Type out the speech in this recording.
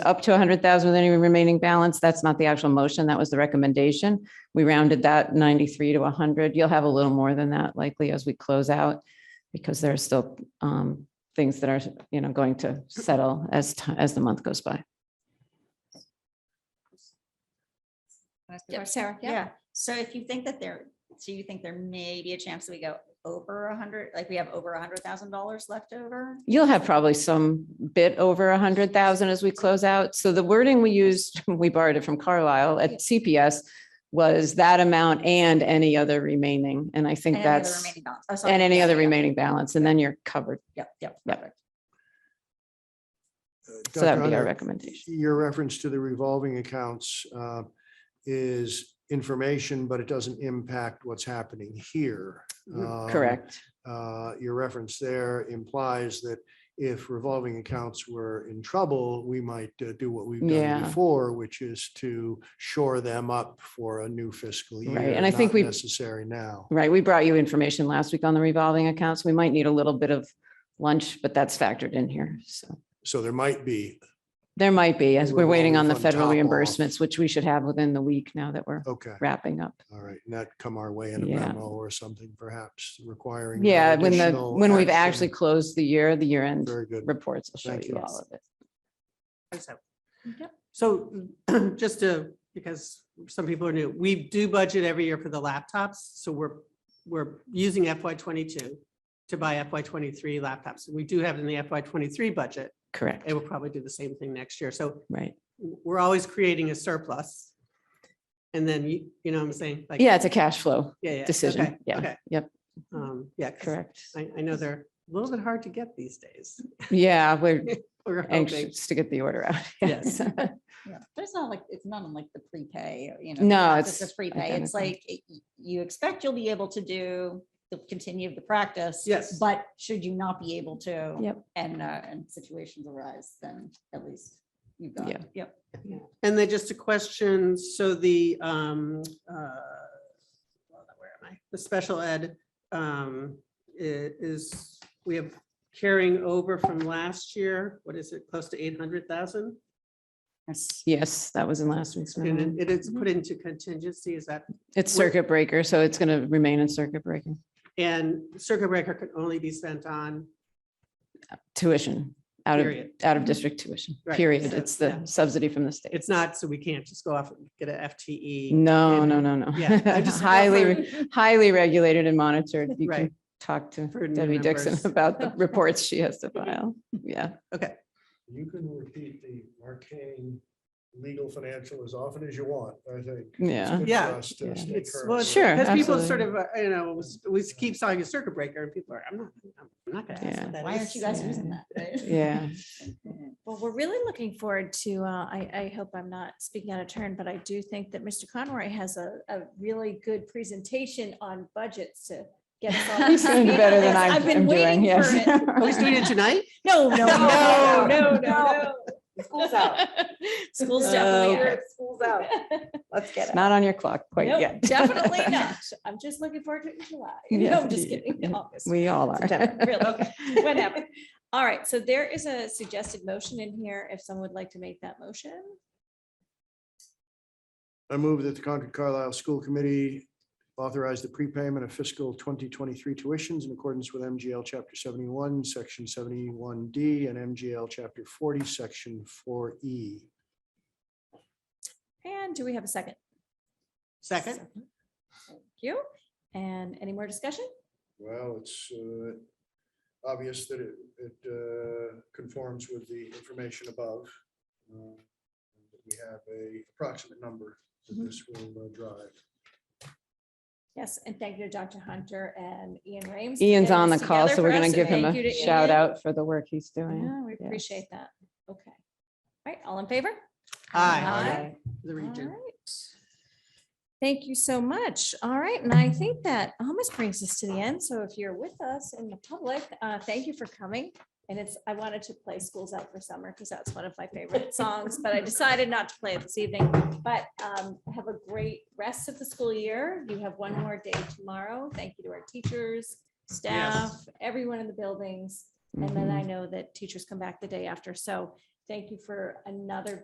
up to 100,000 with any remaining balance. That's not the actual motion. That was the recommendation. We rounded that 93 to 100. You'll have a little more than that likely as we close out because there are still um, things that are, you know, going to settle as, ti- as the month goes by. Yep, Sarah, yeah. So if you think that there, so you think there may be a chance that we go over a hundred, like we have over a hundred thousand dollars left over? You'll have probably some bit over a hundred thousand as we close out. So the wording we used, we borrowed it from Carlisle at CPS was that amount and any other remaining. And I And think any other that's, remaining balance. Oh, sorry. and any Yeah, other yeah, remaining balance, and then you're covered. Yep, yep. Yep. perfect. So that Dr. would be our Hunter, recommendation. Your reference to the revolving accounts uh, is information, but it doesn't impact what's happening here. Um, Mm, Correct. uh, Your reference there implies that if revolving accounts were in trouble, we might uh, do what we've done Yeah. before, which is to shore them up for a new fiscal year. Right, and I think not we- Necessary now. Right, we brought you information last week on the revolving accounts. We might need a little bit of lunch, but that's factored in here. So So there might be, there might be, as we're waiting on the Revolving fund federal top off. reimbursements, which we should have within the week now that we're okay, wrapping up. all right, not come our way in a Yeah. memo or something perhaps requiring. Yeah, when the, additional when we've action. actually closed the year, the year end Very good. reports will show Thank you you. all of it. So- Yep. So just to, because some people are new, we do budget every year for the laptops. So we're, we're using FY twenty-two to buy FY twenty-three laptops. We do have it in the FY twenty-three budget Correct, and we'll probably do the same thing next year. So right. we're always creating a surplus. And then you, you know what I'm saying? Like, Yeah, it's a cash flow yeah, yeah, decision. okay, Yeah, okay. yep, Um, Yeah. 'cause correct. I, I know they're a little bit hard to get these days. Yeah, we're We're hoping. anxious to get the order out. Yes. Yeah, But it's not like, it's not unlike the prepay, you know. No, just it's a prepay. It's like, identical. y- you expect you'll be able to do, the continue the practice. Yes. But should you not be able to? Yep. And, uh, and situations arise, then at least you've got, Yeah. yep. And then just a question, so the, um, uh, where am I? The special ed, um, i- is, we have carrying over from last year, what is it, close to eight hundred thousand? Yes. Yes, that was in last week's. memo. And it is Mm-hmm. put into contingency, is that, It's we're- circuit breaker, so it's going to remain in circuit breaker. and circuit breaker can only be spent on, Tuition, out of, period. out of district tuition, Right, period. so, It's yeah. the subsidy from the state. It's not, so we can't just go off and get a E. FTE. No, in- no, no, no. Yeah, I just- Highly, re- highly regulated and monitored. You Right. can talk to For new Debbie Dixon members. about the reports she has to file. Yeah. Okay, You can repeat the arcane legal financial as often as you want, I think. It's Yeah. good for Yeah. us to Yeah. stay It's- current well, with it. Sure. because people absolutely. sort of, uh, you know, s- we keep saying a circuit breaker, and people are, I'm not, I'm not gonna ask Yeah. what that Why aren't is." you guys yeah. using that? right? Yeah. Well, we're really looking forward to, uh, I, I hope I'm not speaking out of turn, but I do think that Mr. Conroy has a, a really good presentation on budgets to get us all. up to He's doing speed on better than this. I'm I've been I'm doing. waiting for Yes. it. Oh, he's doing it tonight? No, no, No, no, no, no. School's out. School's Oh, definitely okay. out. School's out. Let's get It's not on your clock quite Nope, yet. Definitely not. I'm just looking forward to it in July. Yeah. No, I'm just kidding. in August. We all are. September, Really, whenever. All right, so there is a suggested motion in here. If someone would like to make that motion. I move that the Concord Carlisle School Committee authorize the prepayment of fiscal twenty twenty-three tuitions in accordance with MGL Chapter seventy-one, Section seventy-one D, and MGL Chapter forty, Section four E. And do we have a second? Second? Thank you. And any more discussion? Well, it's uh, obvious that it, it uh, conforms with the information above. uh, that We have a approximate number that Mhm. this will uh, drive. Yes, and thank you to Dr. Hunter and Ian Rames. for Ian's getting on the this call, together so we're for going us, to give and him thank you a to shout Ian. out for the work he's doing. Yeah, we Yes. appreciate that. Okay. All right, all in favor? Aye. The All region. right. Thank you so much. All right, and I think that almost brings us to the end. So if you're with us in the public, uh, thank you for coming. And it's, I wanted to play Schools Out for Summer because that's one of my favorite songs, but I decided not to play it this evening. But um, have a great rest of the school year. You have one more day tomorrow. Thank you to our teachers, Mm-hmm. staff, everyone in the buildings. And then I know that teachers come back the day after. So Thank you for another